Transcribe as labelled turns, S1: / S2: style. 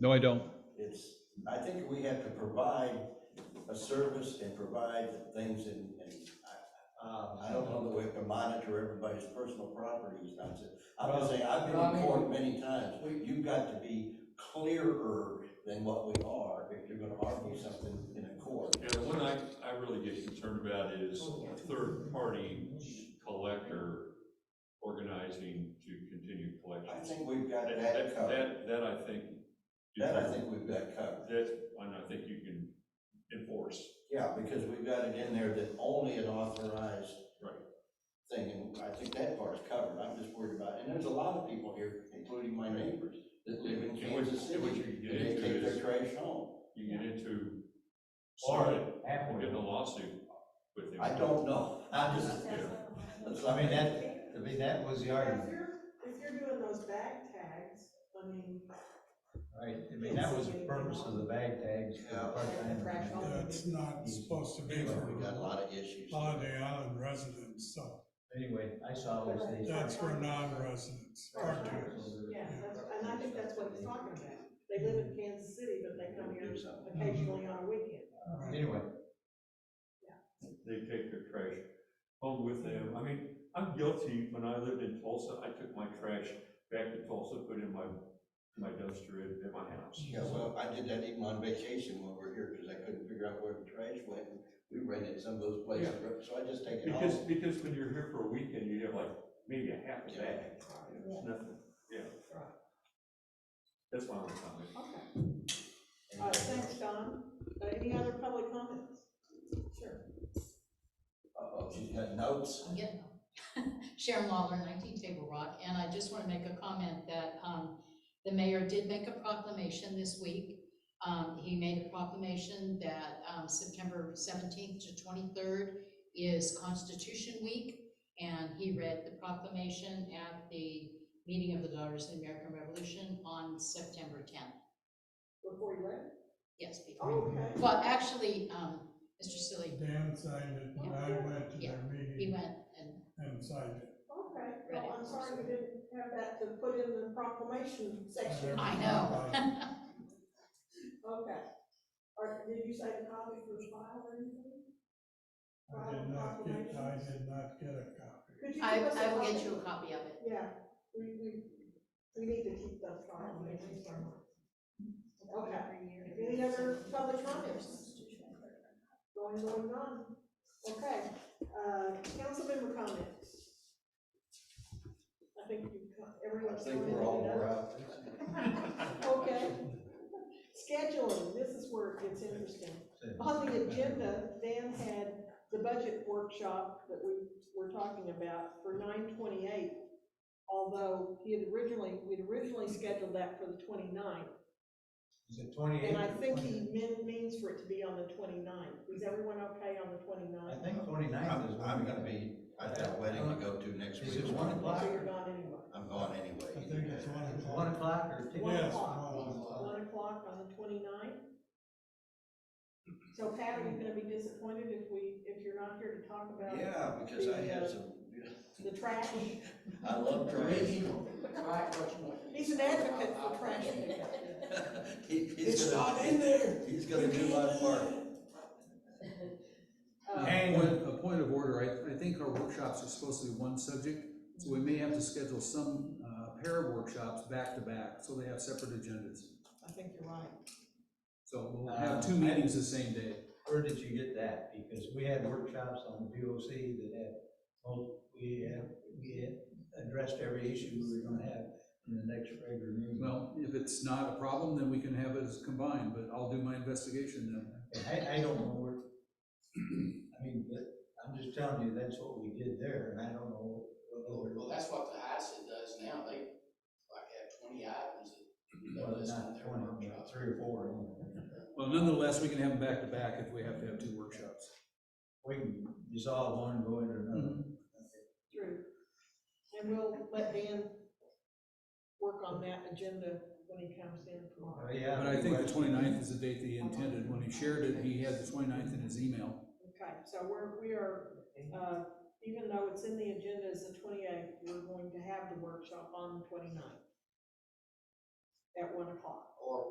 S1: No, I don't.
S2: It's, I think we have to provide a service and provide things and, and I, I don't know that we have to monitor everybody's personal properties, I'm just, I'm just saying, I've been in court many times. You've got to be clearer than what we are if you're gonna argue something in a court.
S3: Yeah, the one I, I really get concerned about is
S2: Oh,
S3: a third-party collector organizing to continue collections.
S2: I think we've got
S3: That-
S2: that covered,
S3: That, that I think. you
S2: that I
S3: can-
S2: think we've got covered.
S3: That, and I think you can enforce.
S2: Yeah, because we've got it in there that only an authorized.
S3: Right.
S2: Thing, and I think that part's covered, I'm just worried about, and there's a lot of people here, including my neighbors, that live in
S3: And what-
S2: Kansas
S3: and What
S2: City.
S3: you can get
S2: And they
S3: into
S2: take their
S3: is,
S2: trash home,
S3: you get into, sorry,
S4: Or
S3: we're getting a
S4: halfway.
S3: lawsuit with them.
S2: I don't know, I just, that's, I mean, that,
S4: I mean, that was the argument,
S5: If you're, if you're doing those bag tags, I mean.
S4: right? I mean, that was the purpose of the bag tags for the
S2: Yeah.
S4: part-time.
S6: That's not supposed to be
S2: but we got a
S6: for
S2: lot of issues.
S6: Holiday Island residents, so
S4: Anyway, I saw those things.
S6: that's for non-residents, part-time.
S5: Yeah, that's, and I think that's what he's talking about. They live in Kansas City, but they come here occasionally on a weekend.
S4: Anyway,
S3: They take their trash home with them. I mean, I'm guilty, when I lived in Tulsa, I took my trash back to Tulsa, put it in my, my dumpster at, at my house.
S2: Yeah, well, I did that even on vacation when we were here, because I couldn't figure out where the trash went, we rented some of those places, so I just take it
S3: Because,
S2: home.
S3: because when you're here for a weekend, you have like maybe a half a
S2: Yeah.
S3: bag. It's nothing, yeah. That's my only comment.
S5: Okay. All right, thanks, Don. Uh, Any other public comments? Sure.
S2: Uh-oh, she's got notes.
S7: I'm getting them. Sharon Lawler, nineteen Table Rock, and I just want to make a comment that, um, the mayor did make a proclamation this week. Um, he made a proclamation that, um, September seventeenth to twenty-third is Constitution Week. And he read the proclamation at the meeting of the Daughters of the American Revolution on September tenth.
S5: Before you leave?
S7: Yes, before,
S5: Okay.
S7: well, actually, um, Mr. Silly,
S6: Dan signed it, and I went to their
S7: he
S6: meeting
S7: went and
S6: and signed it.
S5: Okay. Well, I'm sorry we didn't have that to put in the proclamation section.
S7: I know.
S5: Okay. Or did you say a copy for file or anything?
S6: I did not get, I did not get a copy.
S5: Could you
S7: I,
S5: give us a
S7: I will
S5: copy?
S7: get you a copy of it.
S5: Yeah, we, we, we need to keep those files. Okay, any other public comments? Going, going on, okay, uh, council member comments? I think you,
S2: I
S5: everyone's.
S2: think we're all wore out.
S5: Okay. Scheduling, this is where it gets interesting. On the agenda, Dan had the budget workshop that we were talking about for nine twenty-eight. Although he had originally, we'd originally scheduled that for the 29th,
S4: Is it twenty-eight?
S5: and I think he meant, means for it to be on the 29th. Is everyone okay on the
S4: I
S5: 29th?
S4: think twenty-nine is.
S2: I'm,
S4: when
S2: I'm
S4: we-
S2: gonna be, I've got a wedding to go to next week.
S4: Is it one o'clock?
S5: So you're not anyway.
S2: I'm gone anyway.
S6: I think it's one
S4: It's
S6: o'clock.
S4: One o'clock or two?
S5: One
S6: Yes,
S5: o'clock.
S6: one o'clock.
S5: One o'clock on the 29th. So Pat, are you gonna be disappointed if we, if you're not here to talk about
S2: Yeah, because I have some,
S5: the trash?
S2: I love trash.
S5: He's an advocate for trash pickup.
S2: He- he's gonna-
S6: there.
S2: He's gonna do my part.
S5: Uh,
S4: Hang
S8: Point, a point of order, I, I think our workshops are supposed to be one subject, so we may have to schedule some, uh, pair of workshops back to back, so they have separate agendas.
S5: I think you're right.
S8: So we'll have two
S4: Um, I-
S8: meetings the same day.
S4: Where did you get that? Because we had workshops on the VOC that had, well, we had, we had addressed every issue we were gonna have in the next regular meeting.
S8: Well, if it's not a problem, then we can have it as combined, but I'll do my investigation then.
S4: And I, I don't know where, I mean, but I'm just telling you, that's what we did there, and I don't know what other.
S9: Well, that's what the HACID does now, they like have twenty items that.
S4: Well,
S9: they list on
S4: not
S9: their
S4: twenty, but
S9: workshops.
S4: three or four. anyway.
S8: Well, nonetheless, we can have them back to back if we have to have two workshops.
S4: We can dissolve one, and go into another.
S8: Mm-hmm.
S5: True. And we'll let Dan work on that agenda when he comes in tomorrow.
S4: Well, yeah.
S8: But I think the 29th is the date they intended, when he shared it, he had the 29th in his email.
S5: Okay, so we're, we are, uh, even though it's in the agenda as the twenty-eighth, we're going to have the workshop on the 29th at one o'clock.
S9: Or